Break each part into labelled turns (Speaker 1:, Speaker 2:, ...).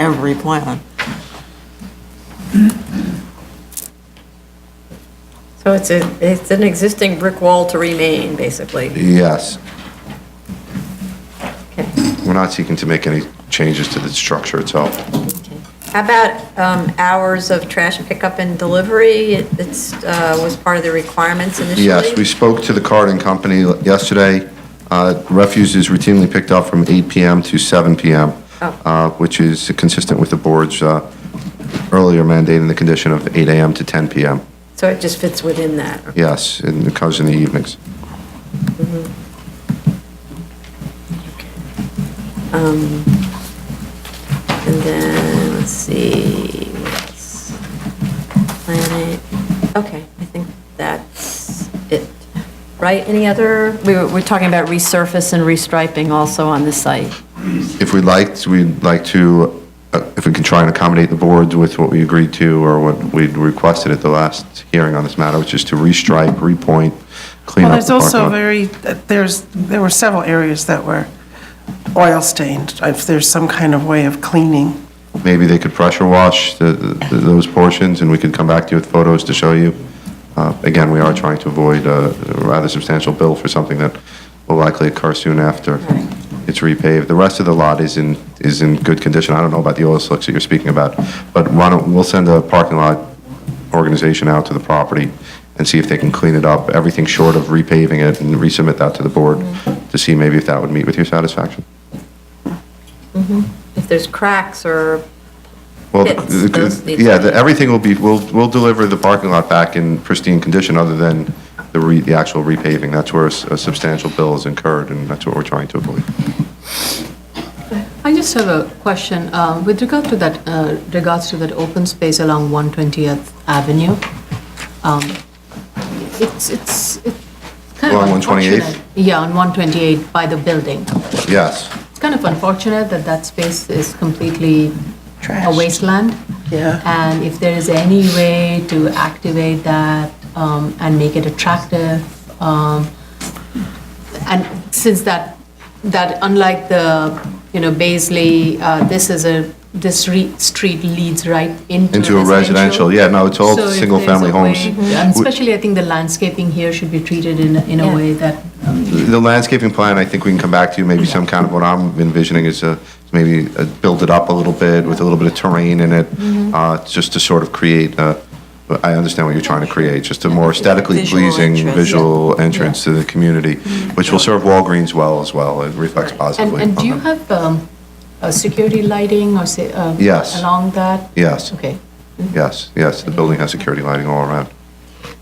Speaker 1: every plan.
Speaker 2: So it's a, it's an existing brick wall to remain, basically.
Speaker 3: Yes,
Speaker 2: Okay.
Speaker 3: we're not seeking to make any changes to the structure itself.
Speaker 2: How about um, hours of trash pickup and delivery? It- It's, uh, was part of the requirements initially?
Speaker 3: Yes, we spoke to the carting company yesterday. Uh, Refuse is routinely picked up from 8 PM to 7 PM,
Speaker 2: Oh.
Speaker 3: uh, which is consistent with the board's uh, earlier mandating the condition of 8 AM to 10 PM.
Speaker 2: So it just fits within that?
Speaker 3: Yes, and it comes in the evenings.
Speaker 2: Um, And then, let's see, what else? Planet, okay, I think that's it. Right, any other,
Speaker 4: We were, we're talking about resurface and restriping also on the site.
Speaker 3: If we liked, we'd like to, uh, if we can try and accommodate the board with what we agreed to or what we requested at the last hearing on this matter, which is to restripe, repoint, clean
Speaker 5: Well,
Speaker 3: up the
Speaker 5: there's
Speaker 3: parking lot.
Speaker 5: also very, there's, there were several areas that were oil stained. If there's some kind of way of cleaning,
Speaker 3: maybe they could pressure wash the, the, those portions, and we could come back to you with photos to show you. Uh, again, we are trying to avoid a rather substantial bill for something that will likely occur soon after
Speaker 2: Right.
Speaker 3: it's repaved. The rest of the lot is in, is in good condition. I don't know about the oil slicks that you're speaking about, but why don't, we'll send a parking lot organization out to the property and see if they can clean it up, everything short of repaving it, and resubmit that to the board to see maybe if that would meet with your satisfaction.
Speaker 2: if there's cracks or
Speaker 3: Well,
Speaker 2: It's-
Speaker 3: the- the-
Speaker 2: those need to
Speaker 3: yeah,
Speaker 2: be-
Speaker 3: the- everything will be, we'll, we'll deliver the parking lot back in pristine condition, other than the re, the actual repaving. That's where a s- a substantial bill is incurred, and that's what we're trying to avoid.
Speaker 6: I just have a question uh, with regard to that, uh, regards to that open space along 120th Avenue. Um, It's, it's it's kind of
Speaker 3: Along 128th?
Speaker 6: unfortunate. Yeah, on 128 by the building.
Speaker 3: Yes,
Speaker 6: It's kind of unfortunate that that space is completely a Oh,
Speaker 5: Trashed.
Speaker 6: wasteland.
Speaker 5: Yeah.
Speaker 6: And if there is any way to activate that um, and make it attractive, um, and since that, that unlike the, you know, Baisley, uh, this is a, this re- street leads right into
Speaker 3: Into a residential, yeah, no, it's all
Speaker 6: So if
Speaker 3: single-family
Speaker 6: there's a
Speaker 3: homes.
Speaker 6: way- Mm-hmm. And
Speaker 3: We-
Speaker 6: especially, I think the landscaping here should be treated in, a- in a
Speaker 2: Yeah.
Speaker 6: way that
Speaker 3: the landscaping plan, I think we can come back to, maybe some kind of, what I'm envisioning is a, maybe uh, build it up a little bit with a little bit of terrain in it, uh, just to sort of create, uh, but I understand what you're trying to create, just a more aesthetically
Speaker 1: Visual
Speaker 3: pleasing
Speaker 1: entrance.
Speaker 3: visual entrance to the community, which will serve Walgreens well as well, it reflects
Speaker 6: And,
Speaker 3: positively.
Speaker 6: and do you
Speaker 3: on them.
Speaker 6: have um, a security lighting or say, um,
Speaker 3: Yes.
Speaker 6: along that?
Speaker 3: Yes,
Speaker 6: Okay.
Speaker 3: yes, yes, the building has security lighting all around.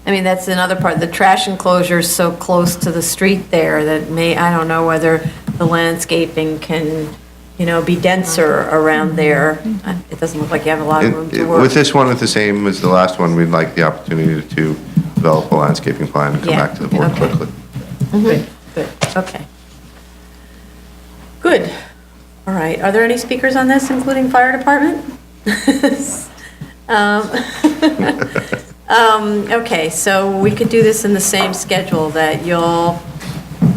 Speaker 2: I mean, that's another part, the trash enclosure is so close to the street there that may, I don't know whether the landscaping can, you know, be denser around there. Uh, It doesn't look like you have a lot of room
Speaker 3: It-
Speaker 2: to
Speaker 3: it-
Speaker 2: work.
Speaker 3: With this one, it's the same as the last one, we'd like the opportunity to develop a landscaping plan and come
Speaker 2: Yeah,
Speaker 3: back to the board
Speaker 2: okay.
Speaker 3: quickly.
Speaker 2: Good, good, okay. Good, all right, are there any speakers on this, including fire department? Um, um, Okay, so we could do this in the same schedule that you'll,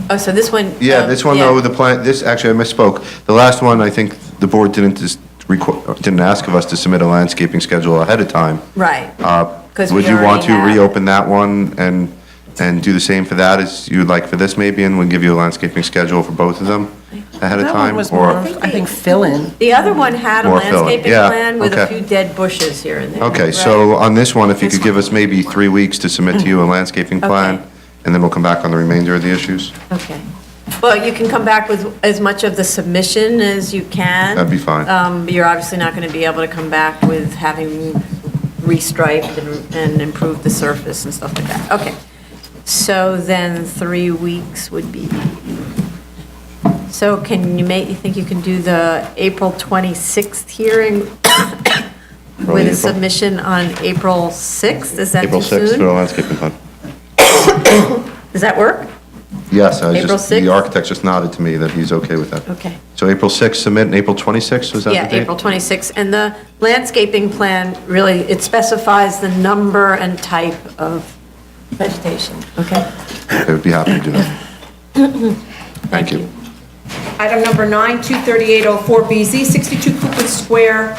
Speaker 2: oh, so this one.
Speaker 3: Yeah,
Speaker 2: um,
Speaker 3: this one
Speaker 2: yeah.
Speaker 3: though, the plan, this, actually, I misspoke. The last one, I think the board didn't just requ- didn't ask of us to submit a landscaping schedule ahead of time.
Speaker 2: Right.
Speaker 3: Uh,
Speaker 2: 'Cause
Speaker 3: Would
Speaker 2: we
Speaker 3: you want
Speaker 2: already
Speaker 3: to
Speaker 2: have-
Speaker 3: reopen that one and, and do the same for that as you would like for this maybe? And we'll give you a landscaping schedule for both of them ahead of
Speaker 5: that
Speaker 3: time?
Speaker 5: one was more,
Speaker 3: or-
Speaker 5: of, I think, fill-in.
Speaker 2: The other one had a
Speaker 3: More filling,
Speaker 2: landscaping
Speaker 3: yeah,
Speaker 2: plan with a
Speaker 3: okay.
Speaker 2: few dead bushes here and there.
Speaker 3: Okay,
Speaker 2: Right.
Speaker 3: so on this one, if you could give us maybe three weeks to submit to you a landscaping
Speaker 2: Mm-hmm. Okay.
Speaker 3: plan, and then we'll come back on the remainder of the issues,
Speaker 2: Okay. Well, you can come back with as much of the submission as you can.
Speaker 3: that'd be fine.
Speaker 2: Um, You're obviously not going to be able to come back with having restriped and- and improved the surface and stuff like that. Okay. So then three weeks would be, so can you make, you think you can do the April 26th hearing
Speaker 3: Early
Speaker 2: with
Speaker 3: April.
Speaker 2: a submission on April 6th? Is that too
Speaker 3: April 6th
Speaker 2: soon?
Speaker 3: for a landscaping plan.
Speaker 2: Does that work?
Speaker 3: Yes, I
Speaker 2: April
Speaker 3: just, the
Speaker 2: 6th?
Speaker 3: architect just nodded to me that he's okay with that.
Speaker 2: Okay.
Speaker 3: So April 6th submit, and April 26th, was that the
Speaker 2: Yeah,
Speaker 3: date?
Speaker 2: April 26th. And the landscaping plan, really, it specifies the number and type of vegetation, okay?
Speaker 3: I would be happy to do that. Thank you.
Speaker 7: Item number nine, 23804BZ, 62 Cooper Square,